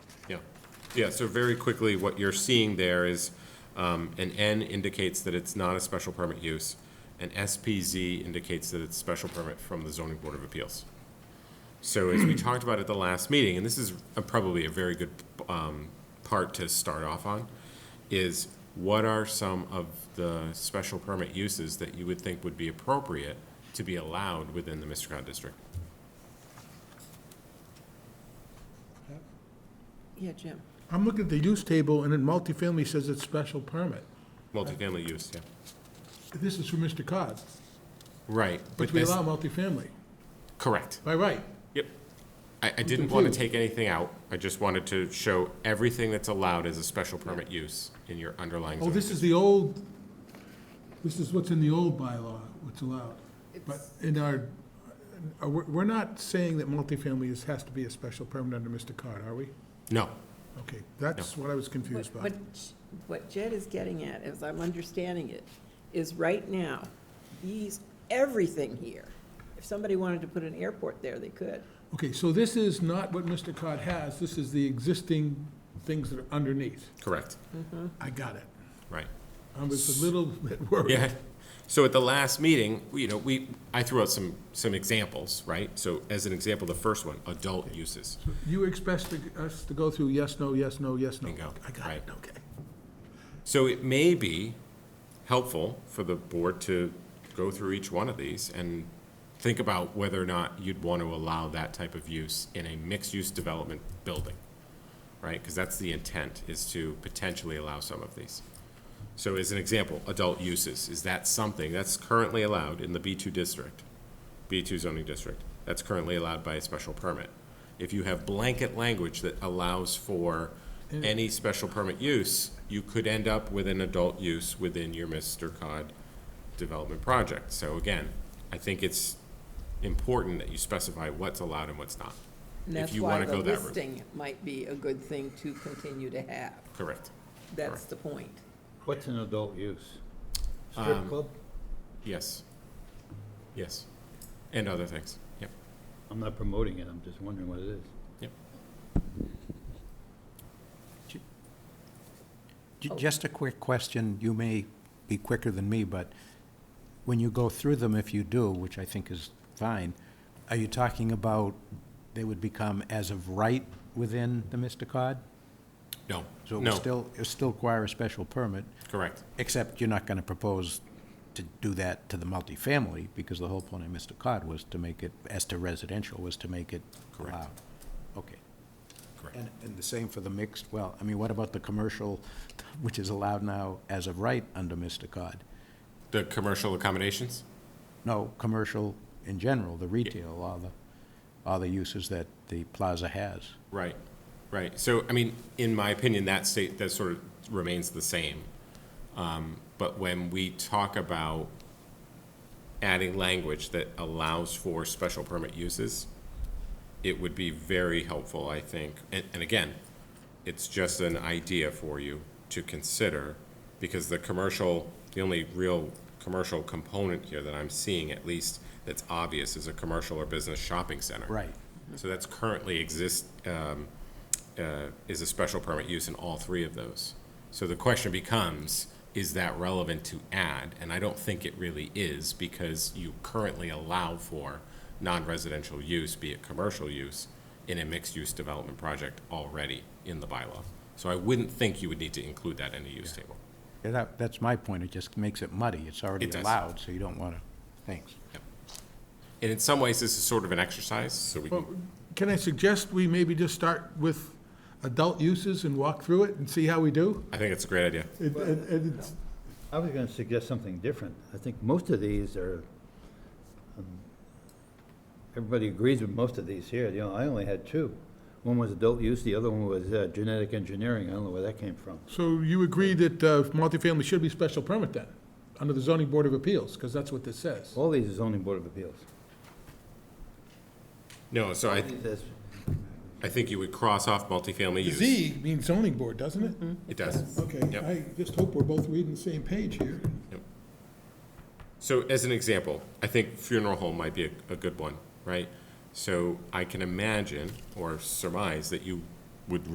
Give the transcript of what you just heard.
Yeah, so very quickly, what you're seeing there is, um, an N indicates that it's not a special permit use. An SPZ indicates that it's special permit from the zoning board of appeals. So as we talked about at the last meeting, and this is a- probably a very good, um, part to start off on, is what are some of the special permit uses that you would think would be appropriate to be allowed within the Mr. district? Yeah, Jim. I'm looking at the use table, and then multifamily says it's special permit. Multifamily use, yeah. This is from Mr. Cod, Right. but which we this- allow multifamily, Correct. by right. Yep. I, I didn't want to confused. take anything out. I just wanted to show everything that's allowed as a special permit use in your underlying Oh, zoning. this is the old, this is what's in the old bylaw, what's allowed. But in our, uh, we're we're not saying that multifamily is, has to be a special permit under Mr. Cod, are we? No, Okay, that's what I was confused by. What, what Jed is getting at, as I'm understanding it, is right now, he's everything here. If somebody wanted to put an airport there, they could. Okay, so this is not what Mr. Cod has, this is the existing things that are underneath. correct, I got it. right. I was a little bit worried. Yeah. So at the last meeting, we- you know, we, I threw out some, some examples, right? So as an example, the first one, adult uses. You expressed to- us to go through yes, no, yes, no, yes, no. Bingo. I got it, Right. okay. So it may be helpful for the board to go through each one of these and think about whether or not you'd want to allow that type of use in a mixed-use development building, right? Because that's the intent, is to potentially allow some of these. So as an example, adult uses, is that something that's currently allowed in the B2 district, B2 zoning district? That's currently allowed by a special permit. If you have blanket language that allows for Mm. any special permit use, you could end up with an adult use within your Mr. Cod development project. So again, I think it's important that you specify what's allowed and what's not. And If that's you why want to the go that route. listing might be a good thing to continue to have. Correct. That's the point. What's an adult use? Um, Strip club? Yes. Yes. And other things. Yep. I'm not promoting it, I'm just wondering what it is. J- Just a quick question, you may be quicker than me, but when you go through them, if you do, which I think is fine, are you talking about they would become as of right within the Mr. Cod? No. So it would No. still, it would still require a special permit, Correct. except you're not going to propose to do that to the multifamily, because the whole point of Mr. Cod was to make it, as to residential, was to make it Correct. allowed. Okay. Correct. And, and the same for the mixed, well, I mean, what about the commercial, which is allowed now as of right under Mr. Cod? The commercial accommodations? No, commercial in general, the retail, all the, all the uses that the plaza has. Right, right. So, I mean, in my opinion, that state, that sort of remains the same. Um, But when we talk about adding language that allows for special permit uses, it would be very helpful, I think. And, and again, it's just an idea for you to consider, because the commercial, the only real commercial component here that I'm seeing, at least, that's obvious, is a commercial or business shopping center. Right. So that's currently exist, um, uh, is a special permit use in all three of those. So the question becomes, is that relevant to add? And I don't think it really is, because you currently allow for non-residential use, be it commercial use, in a mixed-use development project already in the bylaw. So I wouldn't think you would need to include that in the use table. Yeah, That, that's my point, it just makes it muddy, it's already It does. allowed, so you don't want to, thanks. And in some ways, this is sort of an exercise, so we Well, can, Can I suggest we maybe just start with adult uses and walk through it and see how we do? I think it's a great idea. It- it- it- it's- I was gonna suggest something different. I think most of these are, um, everybody agrees with most of these here, you know, I only had two. One was adult use, the other one was uh, genetic engineering, I don't know where that came from. So you agree that uh, multifamily should be special permit then, under the zoning board of appeals, because that's what this says. All these is zoning board of appeals. No, so I, That's- I think you would cross off multifamily use. Z means zoning board, doesn't it? It does. Okay, Yep. I just hope we're both reading the same page here. So as an example, I think funeral home might be a, a good one, right? So I can imagine or surmise that you would